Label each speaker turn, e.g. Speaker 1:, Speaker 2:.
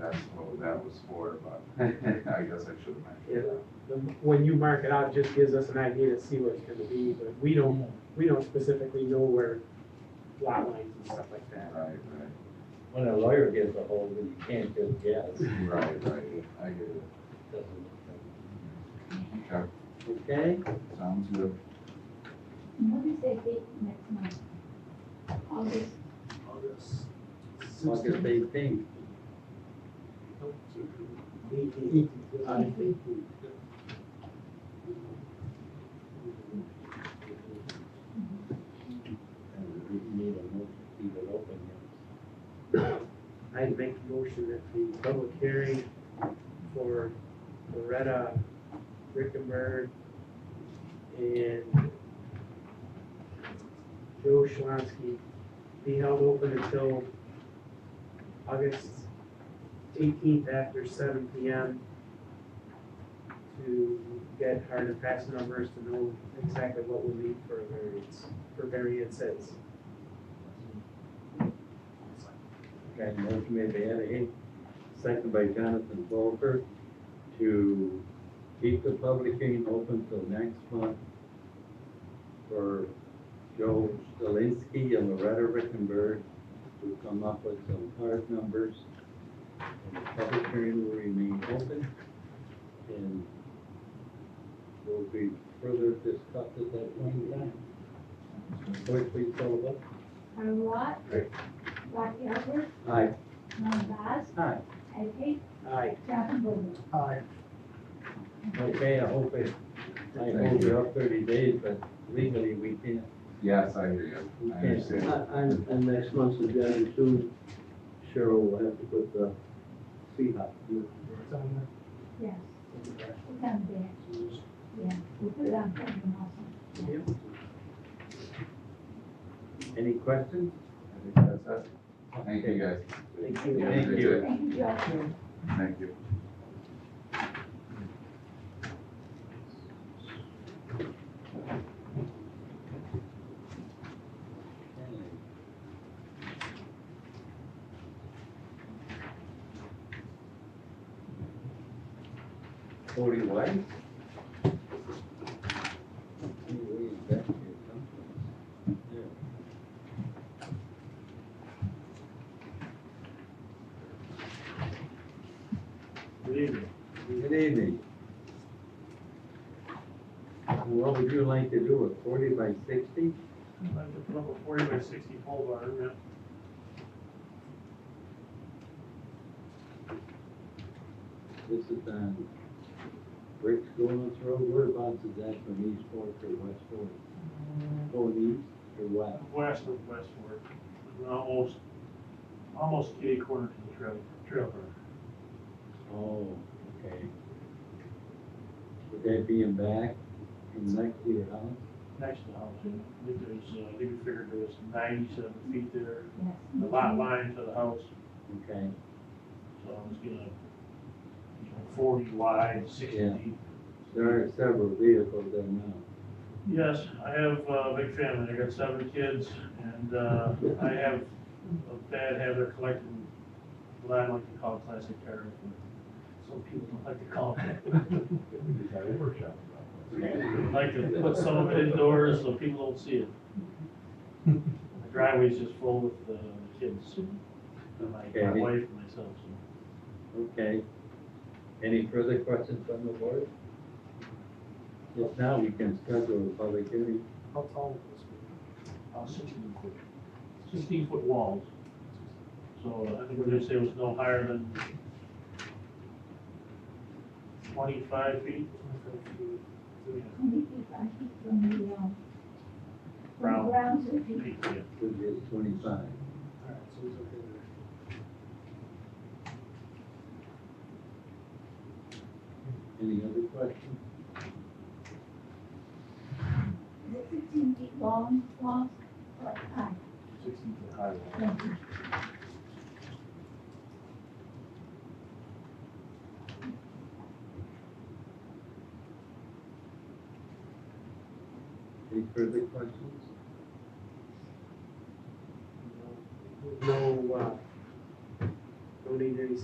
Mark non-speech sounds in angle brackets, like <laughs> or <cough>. Speaker 1: that's what that was for, but <laughs> I guess I should have mentioned that.
Speaker 2: The- When you mark it out, it just gives us an idea to see what it's gonna be, but we don't, we don't specifically know where lot lines and stuff like that.
Speaker 1: Right,
Speaker 3: When a lawyer gets a hold of it, you can't just guess.
Speaker 1: right, right, right, I get it. Okay,
Speaker 3: Okay,
Speaker 1: sounds good.
Speaker 4: What is that date next month? August,
Speaker 3: August eighteenth. And we need a motion to keep it open.
Speaker 2: I'd make a motion that the public hearing for Loretta Rickenberg and Joe Schlansky be held open until August eighteenth after seven P M to get hard and fast numbers to know exactly what we need for a variance, for variances.
Speaker 3: Okay, motion made by Ed Hay, second by Jonathan Volker, to keep the public hearing open till next month for Joe Stalinsky and Loretta Rickenberg to come up with some hard numbers. And the public hearing will remain open and will be further discussed at that point in time. Clerk, please call the vote.
Speaker 4: Aaron Watt.
Speaker 3: Aye.
Speaker 4: Rocky Albert,
Speaker 3: Aye.
Speaker 4: Ron Bass,
Speaker 3: Aye.
Speaker 4: Ed Haig,
Speaker 2: Aye.
Speaker 4: Jonathan Bogan.
Speaker 3: Okay, I hope it, I hope you're up thirty days, but legally we can't.
Speaker 1: Yes, I hear you,
Speaker 3: we
Speaker 1: I
Speaker 3: can't.
Speaker 1: understand.
Speaker 5: Uh, And, and next month's agenda too, Cheryl will have to put the fee up.
Speaker 4: Yes. It's on there. Yeah, we put it on something also.
Speaker 3: Any questions?
Speaker 1: I think that's it. Thank you, guys.
Speaker 2: Thank
Speaker 1: Yeah,
Speaker 2: you.
Speaker 3: Thank
Speaker 1: that's
Speaker 3: you.
Speaker 1: it.
Speaker 4: Thank you, Joe.
Speaker 1: Thank you.
Speaker 3: Forty White?
Speaker 2: Good evening.
Speaker 3: Good evening. What would you like to do, a forty by sixty?
Speaker 6: I'd like to put up a forty by sixty pole barn, yeah.
Speaker 3: This is on Rick's Golden's Road, whereabouts is that from East Fork or West Fork? Going east or west?
Speaker 6: west of West Fork, and almost, almost kitty corner to the trail, trail burn.
Speaker 3: Oh, okay. Would that be in back, in next to your house?
Speaker 6: next to the house. And I think there's, uh, I think we figured there was ninety-seven feet there,
Speaker 4: Yes.
Speaker 6: the lot line to the house,
Speaker 3: Okay,
Speaker 6: so I was gonna, you know, forty wide, sixty
Speaker 3: Yeah.
Speaker 6: deep.
Speaker 3: there are several vehicles there now.
Speaker 6: Yes, I have uh, a big family, I got seven kids, and, uh, I have a bad habit of collecting what I like to call classic car. Some people don't like to call <laughs> it. I'd like to put some of it indoors so people don't see it. The driveway's just full with the kids, and my, my
Speaker 3: Okay.
Speaker 6: wife and myself, so.
Speaker 3: Okay. Any further questions from the board? If not, we can schedule a public hearing.
Speaker 2: How tall is this?
Speaker 6: Uh, sixteen foot, sixteen foot walls. So uh, I think we're gonna say it was no higher than twenty-five feet.
Speaker 4: Twenty feet, I think, from the, um, from
Speaker 6: Ground.
Speaker 4: the ground to the people.
Speaker 6: Feet, yeah.
Speaker 3: Which is twenty-five. Any other questions?
Speaker 4: Is it sixteen feet long, long, or high?
Speaker 6: Sixteen foot high wall.
Speaker 4: Thank you.
Speaker 3: Any further questions?
Speaker 2: No, uh,